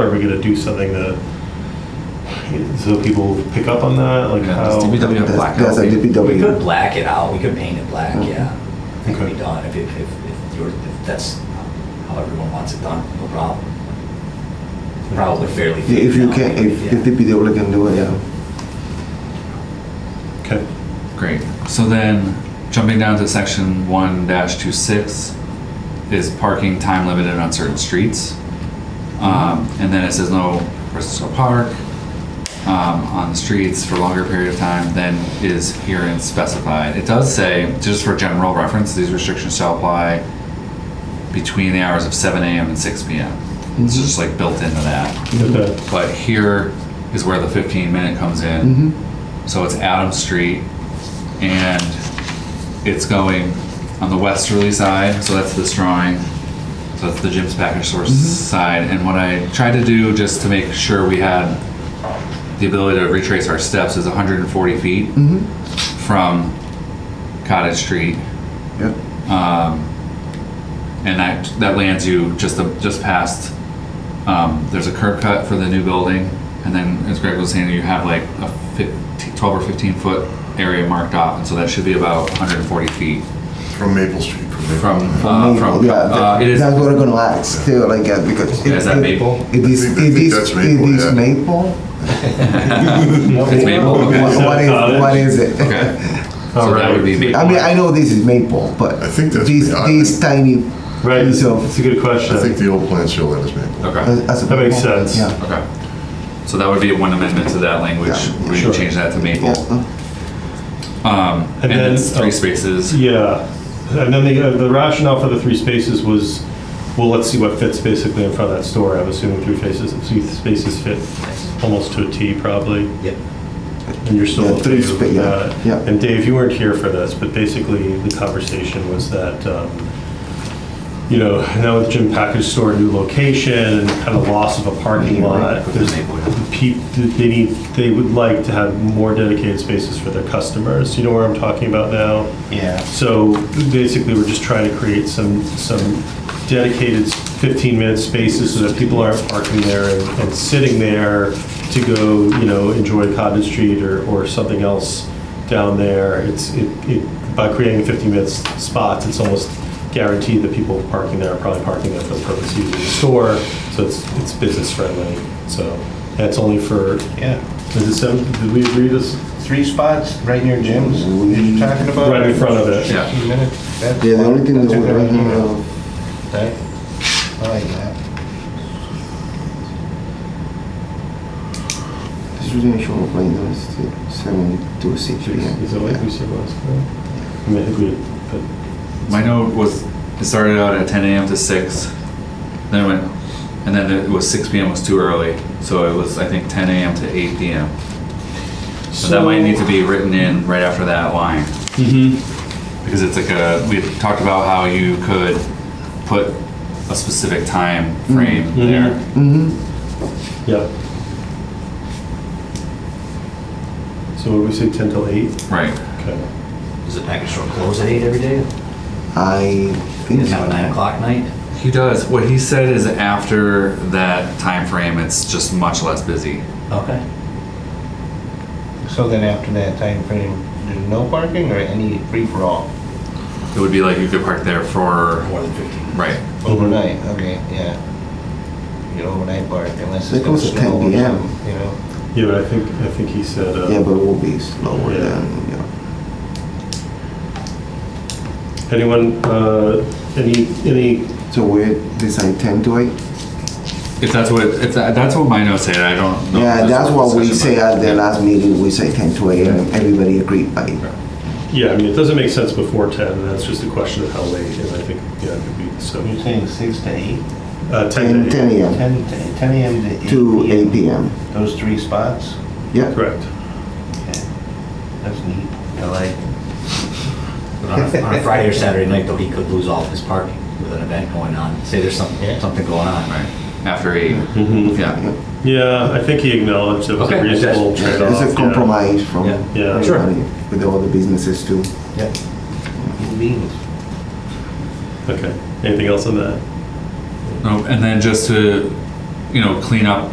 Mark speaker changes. Speaker 1: Are we gonna do something that, so people pick up on that, like
Speaker 2: Yeah,
Speaker 1: how?
Speaker 2: just DPW
Speaker 1: Okay.
Speaker 2: have black
Speaker 3: That's a
Speaker 2: outfit.
Speaker 3: DPW.
Speaker 4: We could black it out, we could paint it black, yeah. It could be
Speaker 1: Okay.
Speaker 4: done, if, if, if if you're, if that's how everyone wants it done, no problem. Probably fairly.
Speaker 3: Yeah, If you
Speaker 4: figured out,
Speaker 3: can, if,
Speaker 4: yeah.
Speaker 3: if DPW can do it, yeah.
Speaker 1: Okay,
Speaker 2: Great. So then, jumping down to section one dash two six is parking time limited on certain streets. Um, and then it says no persons shall park, um, on the streets for longer period of time than is herein specified. It does say, just for general reference, these restrictions shall apply between the hours of seven AM and six PM. It's just like built into that.
Speaker 1: okay,
Speaker 2: But here is where the fifteen minute comes in. So it's Adams Street and it's going on the westerly side, so that's this drawing. So that's the Jim's Package Store side. And what I tried to do just to make sure we had the ability to retrace our steps is 140 feet from Cottage Street. Um,
Speaker 3: Yeah.
Speaker 2: And that, that lands you just, a- just past, um, there's a curb cut for the new building. And then, as Greg was saying, you have like a 15 12 or 15 foot area marked off. And so that should be about 140 feet
Speaker 5: From Maple Street.
Speaker 2: from, uh, from,
Speaker 3: yeah,
Speaker 2: uh,
Speaker 3: that-
Speaker 2: it is,
Speaker 3: that's what I'm gonna ask too, like, uh, because.
Speaker 2: Yeah, is that
Speaker 3: it-
Speaker 2: maple?
Speaker 3: It is,
Speaker 5: I think- I
Speaker 3: it
Speaker 5: think
Speaker 3: is,
Speaker 5: that's
Speaker 3: it
Speaker 5: maple,
Speaker 3: is
Speaker 5: yeah.
Speaker 3: maple?
Speaker 2: it's maple, okay.
Speaker 3: What- What is, what is it?
Speaker 2: Okay.
Speaker 1: All
Speaker 2: So that would be
Speaker 1: right.
Speaker 2: maple.
Speaker 3: I mean, I know this is maple, but.
Speaker 5: I think that's
Speaker 3: This,
Speaker 5: beyond-
Speaker 3: this tiny
Speaker 1: right,
Speaker 3: piece of.
Speaker 1: it's a good question.
Speaker 5: I think the old plant still is Maple.
Speaker 2: Okay,
Speaker 3: That
Speaker 1: That makes sense.
Speaker 3: Yeah.
Speaker 2: okay. So that would be one amendment to that language.
Speaker 3: Yeah,
Speaker 2: We
Speaker 1: sure.
Speaker 2: can change that to maple.
Speaker 3: Yeah.
Speaker 2: Um,
Speaker 1: And
Speaker 2: and
Speaker 1: then-
Speaker 2: it's
Speaker 1: oh.
Speaker 2: three spaces.
Speaker 1: Yeah, and then the, uh, the rationale for the three spaces was, well, let's see what fits basically in front of that store. I'm assuming three faces, three spaces fit almost to a T probably,
Speaker 4: Yep.
Speaker 1: and you're still
Speaker 3: Yeah,
Speaker 1: okay
Speaker 3: three
Speaker 1: with
Speaker 3: spa- yeah,
Speaker 1: that.
Speaker 3: yeah.
Speaker 1: And Dave, you weren't here for this, but basically the conversation was that, um, you know, now with Jim Package Store, new location, kind of loss of a parking lot, there's people, they need, they would like to have more dedicated spaces for their customers. You know where I'm talking about now?
Speaker 6: Yeah.
Speaker 1: So basically, we're just trying to create some, some dedicated 15-minute spaces so that people aren't parking there and and sitting there to go, you know, enjoy Cottage Street or, or something else down there. It's, it, it by creating 15-minute spots, it's almost guaranteed that people parking there are probably parking there for the purpose of using the store, so it's, it's business friendly. So that's only for,
Speaker 6: Yeah,
Speaker 1: is it seven, did we agree this,
Speaker 6: three spots right near Jim's, you're talking about?
Speaker 1: Right in front of it.
Speaker 2: Yeah.
Speaker 6: 15 minutes, that's
Speaker 3: Yeah, the only thing
Speaker 6: that's
Speaker 3: that
Speaker 6: in
Speaker 3: would, uh,
Speaker 6: there,
Speaker 3: right
Speaker 6: you
Speaker 3: now,
Speaker 6: know, right? I like that.
Speaker 3: this residential right now is still seven to six P M.
Speaker 1: is it like we said last time? I mean, I think we, but
Speaker 2: My note was, it started out at ten AM to six, then it went, and then it was six PM was too early, so it was, I think, ten AM to eight PM. So that might need to be written in right after that line.
Speaker 1: Mm-hmm,
Speaker 2: Because it's like a, we had talked about how you could put a specific time frame there.
Speaker 3: Mm-hmm.
Speaker 1: Yeah. So what did we say, 10 till 8?
Speaker 2: Right.
Speaker 1: Okay.
Speaker 4: Does the package store close at eight every day?
Speaker 3: I
Speaker 4: You
Speaker 3: think.
Speaker 4: guys have a nine o'clock night?
Speaker 2: He does. What he said is after that time frame, it's just much less busy.
Speaker 4: Okay.
Speaker 6: So then after that time frame, there's no parking or any free-for-all
Speaker 1: Mm-hmm.
Speaker 2: It would be like you could park there for,
Speaker 4: More than fifteen.
Speaker 2: right.
Speaker 6: overnight, okay, yeah. You know, overnight park unless
Speaker 3: They
Speaker 6: it's gonna
Speaker 3: close at 10
Speaker 6: snow or
Speaker 3: PM.
Speaker 6: something, you know?
Speaker 1: Yeah, but I think, I think he said, uh,
Speaker 3: Yeah, but it will be slower
Speaker 1: Yeah.
Speaker 3: than, you know.
Speaker 1: anyone, uh, any, any,
Speaker 3: So we decide ten to eight?
Speaker 2: If that's what, if that, that's what my notes say, I don't know. if
Speaker 3: Yeah, that's what we
Speaker 2: discussion,
Speaker 3: say
Speaker 2: but-
Speaker 3: at the last meeting, we say ten to eight, and everybody agreed by it.
Speaker 1: yeah, I mean, it doesn't make sense before 10, and that's just a question of how late, and I think, yeah, it could be, so,
Speaker 6: You're saying six to eight,
Speaker 1: uh, 10
Speaker 3: Ten,
Speaker 1: to 8.
Speaker 3: ten AM
Speaker 6: 10 to- 10 AM to eight?
Speaker 3: to eight PM.
Speaker 6: Those three spots?
Speaker 3: Yeah,
Speaker 1: Correct.
Speaker 6: Okay. That's neat, I like.
Speaker 4: But on a, on a Friday or Saturday night, though, he could lose all of his parking with an event going on. Say there's
Speaker 6: Yeah.
Speaker 4: something, something going on,
Speaker 2: Right, after eight,
Speaker 3: Mm-hmm.
Speaker 1: Mhm.
Speaker 2: yeah.
Speaker 1: Yeah, I think he acknowledged it was a
Speaker 4: Okay, that's-
Speaker 1: reasonable trade-off.
Speaker 3: it's a
Speaker 1: yeah.
Speaker 3: compromise from
Speaker 4: Yeah.
Speaker 1: Yeah. Sure.
Speaker 3: everybody, with all the businesses too.
Speaker 6: Yep. Beans.
Speaker 1: Okay, anything else on that?
Speaker 2: No, and then just to you know, clean up